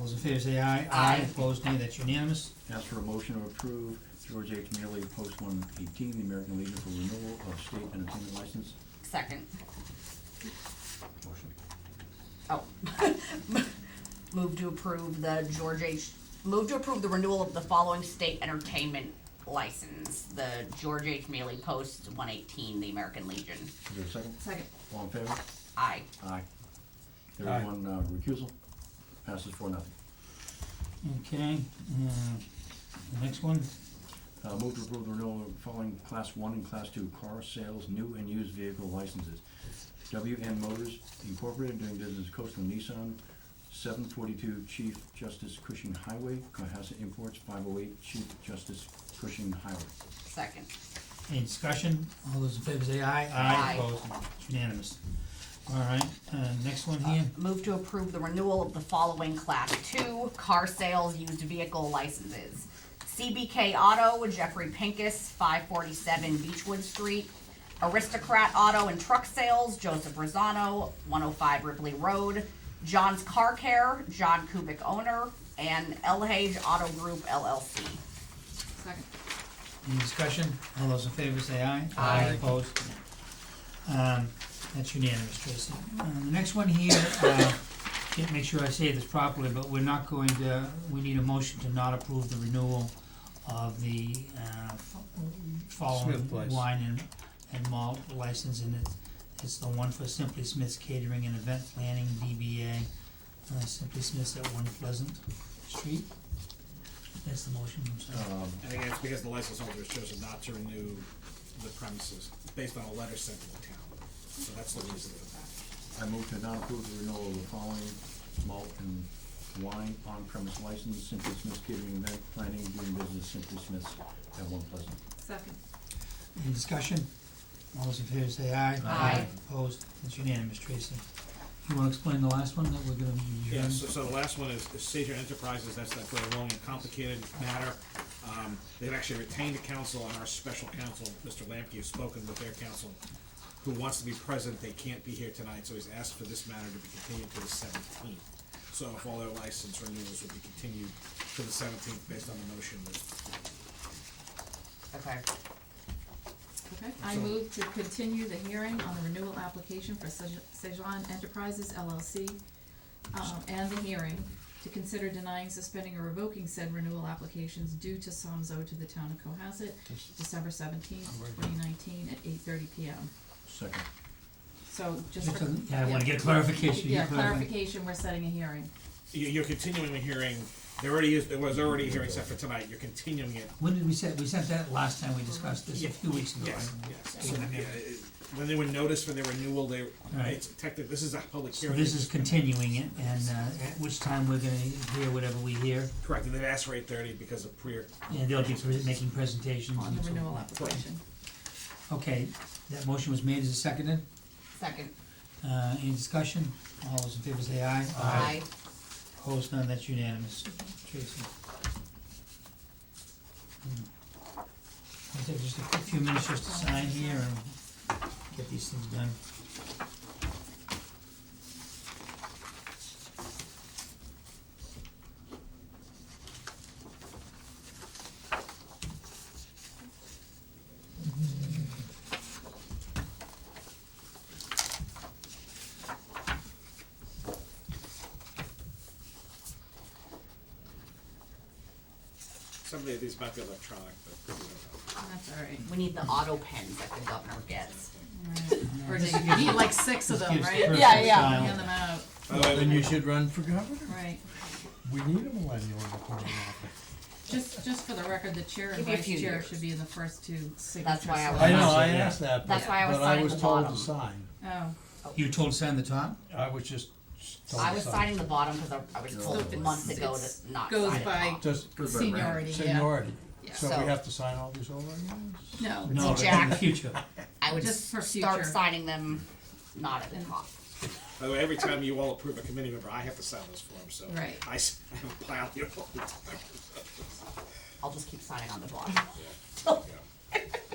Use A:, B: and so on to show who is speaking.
A: those in favor say aye.
B: Aye.
A: Opposed, nay, that's unanimous.
C: Ask for a motion to approve George H. Mealy, Post one eighteen, the American Legion for renewal of state entertainment license.
B: Second.
C: Motion.
B: Oh. Move to approve the George H., move to approve the renewal of the following state entertainment license. The George H. Mealy Post one eighteen, the American Legion.
C: Is there a second?
D: Second.
C: All in favor?
B: Aye.
C: Aye. There
A: Aye.
C: is one uh, recusal. Passes four nothing.
A: Okay, uh, the next one,
C: Uh, move to approve the renewal of following class one and class two car sales, new and used vehicle licenses. WN Motors Incorporated doing business as Coastal Nissan, seven forty-two Chief Justice Cushing Highway, Cohasset Imports, five oh eight Chief Justice Cushing Highway.
B: Second.
A: any discussion? All those in favor say aye.
B: Aye.
A: Opposed, it's unanimous. All right, uh, next one
B: Uh,
A: here,
B: Move to approve the renewal of the following Class 2 car sales used vehicle licenses. CBK Auto, Jeffrey Pincus, 547 Beechwood Street. Aristocrat Auto and Truck Sales, Joseph Rosano, 105 Ripley Road. John's Car Care, John Kubik owner, and Elhage Auto Group LLC.
D: Second.
A: any discussion? All those in favor say aye.
B: Aye.
A: Opposed, um, that's unanimous, Tracy. Uh, the next one here, uh, can't make sure I say this properly, but we're not going to, we need a motion to not approve the renewal of the, uh, f- following
E: Smith Place.
A: wine and, and malt license, and it's, it's the one for Simply Smith's Catering and Event Planning, DBA, uh, Simply Smith's at One Pleasant Street. That's the motion, I'm sorry.
C: Um,
E: And again, it's because the license holder has chosen not to renew the premises based on a letter sent to the town. So that's the reason for that.
C: I move to not approve the renewal of the following malt and wine on-premise license, Simply Smith's Catering Event Planning, doing business as Simply Smith's at One Pleasant.
D: Second.
A: Any discussion? All those in favor say aye.
B: Aye.
A: Opposed, it's unanimous, Tracy. You wanna explain the last one that we're gonna be
E: Yeah,
A: adjourned?
E: so, so the last one is is Seizure Enterprises, that's that very long and complicated matter. Um, they've actually retained a counsel and our special counsel, Mr. Lamke, has spoken with their counsel, who wants to be present, they can't be here tonight, so he's asked for this matter to be continued to the seventeenth. So if all their license renewals will be continued to the seventeenth based on the motion that
B: Okay.
D: Okay. I move to continue the hearing on the renewal application for Sej- Sejan Enterprises LLC, um, and the hearing to consider denying, suspending, or revoking said renewal applications due to sums owed to the town of Cohasset, December seventeenth, twenty nineteen, at eight thirty PM.
C: Second.
D: So just
A: Just
D: for.
A: a- Yeah, I wanna
D: yeah.
A: get clarification. You
D: Yeah,
A: clarify.
D: clarification, we're setting a hearing.
E: You- You're continuing the hearing, there already is, there was already a hearing set for tonight, you're continuing it,
A: When did we set, we sent that last time we discussed this, a few weeks ago.
E: yes,
A: right?
E: yes. So, yeah, it- When they were noticed for their renewal, they,
A: Right.
E: it's technically, this is a public
A: So
E: hearing.
A: this is continuing it, and, uh, at which time we're gonna hear whatever we hear,
E: Correct, and they've asked for eight thirty because of prior,
A: and they'll be pre- making presentations
D: on
A: and
D: the
A: so
D: renewal
A: forth.
D: application.
A: Okay, that motion was made, is it seconded?
B: Second.
A: Uh, any discussion? All those in favor say aye.
B: Aye.
A: Opposed, none, that's unanimous. Tracy. Hmm. I'll take just a quick few minutes just to sign here and get these things done.
E: some of these might be electronic, but we don't know.
D: That's all right.
B: We need the auto pens that the governor gets.
D: Or do you need like six of them,
A: Gives the
D: right?
A: person
B: Yeah,
A: to
B: yeah.
A: sign.
D: Hand them out,
E: By the way,
F: Then you should run for governor.
D: right.
F: We need a millennial in the party office.
D: Just, just for the record, the chair and
B: Give me a
D: vice
B: few
D: chair
B: years.
D: should be in the first two signatures.
B: That's why I was-
F: I know, I asked that, but,
B: That's why I was
F: but I
B: signing
F: was
B: the
F: told
B: bottom.
F: to sign.
D: Oh,
A: You told sign the top?
F: I was just told
B: I
F: to
B: was
F: sign.
B: signing the bottom because I, I was told
D: it's-
B: months ago
D: it's-
B: to not sign
D: goes
B: the
D: by-
B: top.
F: Just
D: seniority, yeah.
F: seniority.
D: Yeah.
F: So
B: So-
F: we have to sign all these over again?
D: No,
A: No,
D: it's
A: but
D: a
A: in
D: jack,
A: the future.
B: I would
D: Just for
B: start
D: future.
B: signing them not at the top.
E: by the way, every time you all approve a committee member, I have to sign those forms, so.
D: Right.
E: I, s- I have a pile here all the time.
B: I'll just keep signing on the bottom.
E: Yeah.